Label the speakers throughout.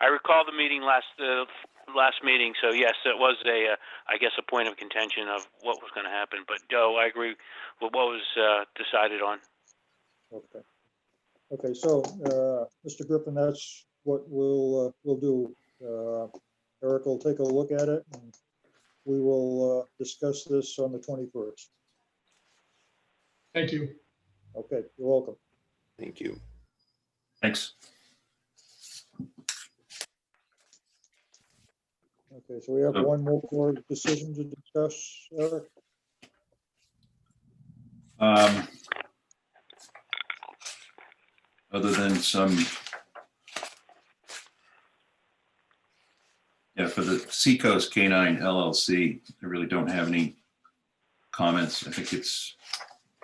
Speaker 1: I recall the meeting last, uh, last meeting, so yes, it was a, uh, I guess, a point of contention of what was gonna happen, but, Joe, I agree with what was, uh, decided on.
Speaker 2: Okay. Okay, so, uh, Mr. Griffin, that's what we'll, uh, we'll do. Uh, Eric will take a look at it and we will, uh, discuss this on the twenty-first.
Speaker 3: Thank you.
Speaker 2: Okay, you're welcome.
Speaker 4: Thank you.
Speaker 5: Thanks.
Speaker 2: Okay, so we have
Speaker 5: Uh,
Speaker 2: one more for decision to discuss, Eric.
Speaker 5: Um, Other than some. Yeah, for the Seacoast Canine LLC, I really don't have any comments. I think it's,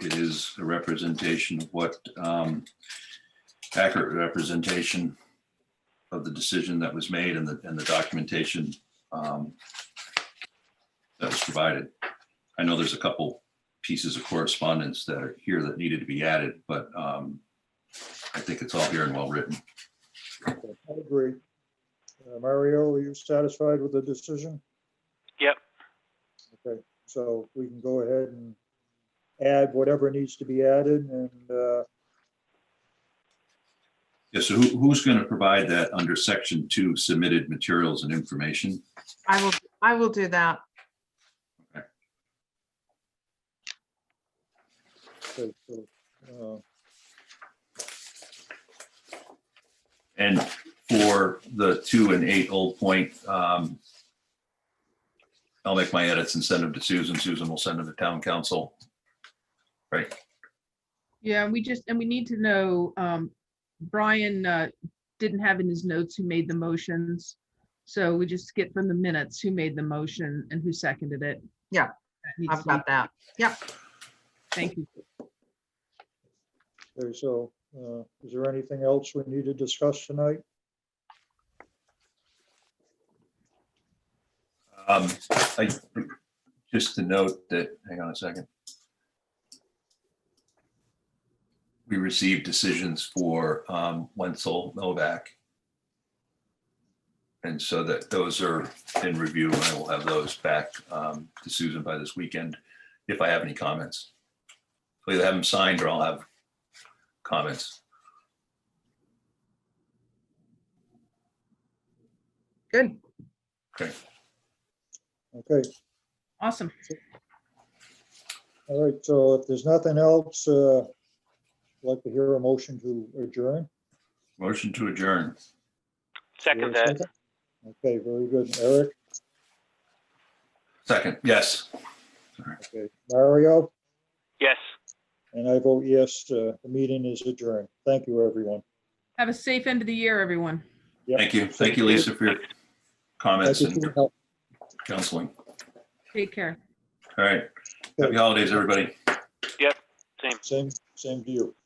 Speaker 5: it is a representation of what, um, accurate representation of the decision that was made and the, and the documentation um, that was provided. I know there's a couple pieces of correspondence that are here that needed to be added, but um, I think it's all here and well written.
Speaker 2: Okay, I agree. Uh, Mario, are you satisfied with the decision?
Speaker 1: Yep.
Speaker 2: Okay, so we can go ahead and add whatever needs to be added and, uh,
Speaker 5: Yeah, so who, who's going to provide that under section two submitted materials and information?
Speaker 6: I will, I will do that.
Speaker 2: okay, so, uh,
Speaker 5: And for the two and eight Old Point, um, I'll make my edits and send them to Susan. Susan will send them to town council.
Speaker 7: Yeah, we just, and we need to know, um, Brian, uh, didn't have in his notes who made the motions. So we just get from the minutes who made the motion and who seconded it.
Speaker 6: Yeah,
Speaker 7: That needs
Speaker 6: I've
Speaker 7: to be-
Speaker 6: got that.
Speaker 7: Thank you.
Speaker 2: okay, so, uh, is there anything else we need to discuss tonight?
Speaker 5: Um, I, just to note that, hang on a second. We received decisions for um, Wenzel Novak. And so that those are in review. and I will have those back um, to Susan by this weekend if I have any comments. I'll Either have them signed or I'll have comments.
Speaker 7: Good.
Speaker 2: Okay,
Speaker 7: Awesome.
Speaker 2: all right, so if there's nothing else, uh, I'd like to hear a motion to adjourn.
Speaker 5: Motion to adjourn.
Speaker 1: Second that,
Speaker 2: Okay, very good. Eric,
Speaker 5: Second, yes.
Speaker 2: okay, Mario,
Speaker 1: yes.
Speaker 2: and I vote yes, uh, the meeting is adjourned. Thank you, everyone.
Speaker 7: Have a safe end of the year, everyone.
Speaker 5: Thank you. Thank you, Lisa, for your
Speaker 2: Thank
Speaker 5: comments
Speaker 2: you for your
Speaker 5: and
Speaker 2: help.
Speaker 5: counseling.
Speaker 7: Take care.
Speaker 5: All right. Happy holidays, everybody.
Speaker 1: Same.
Speaker 2: Same, same to you.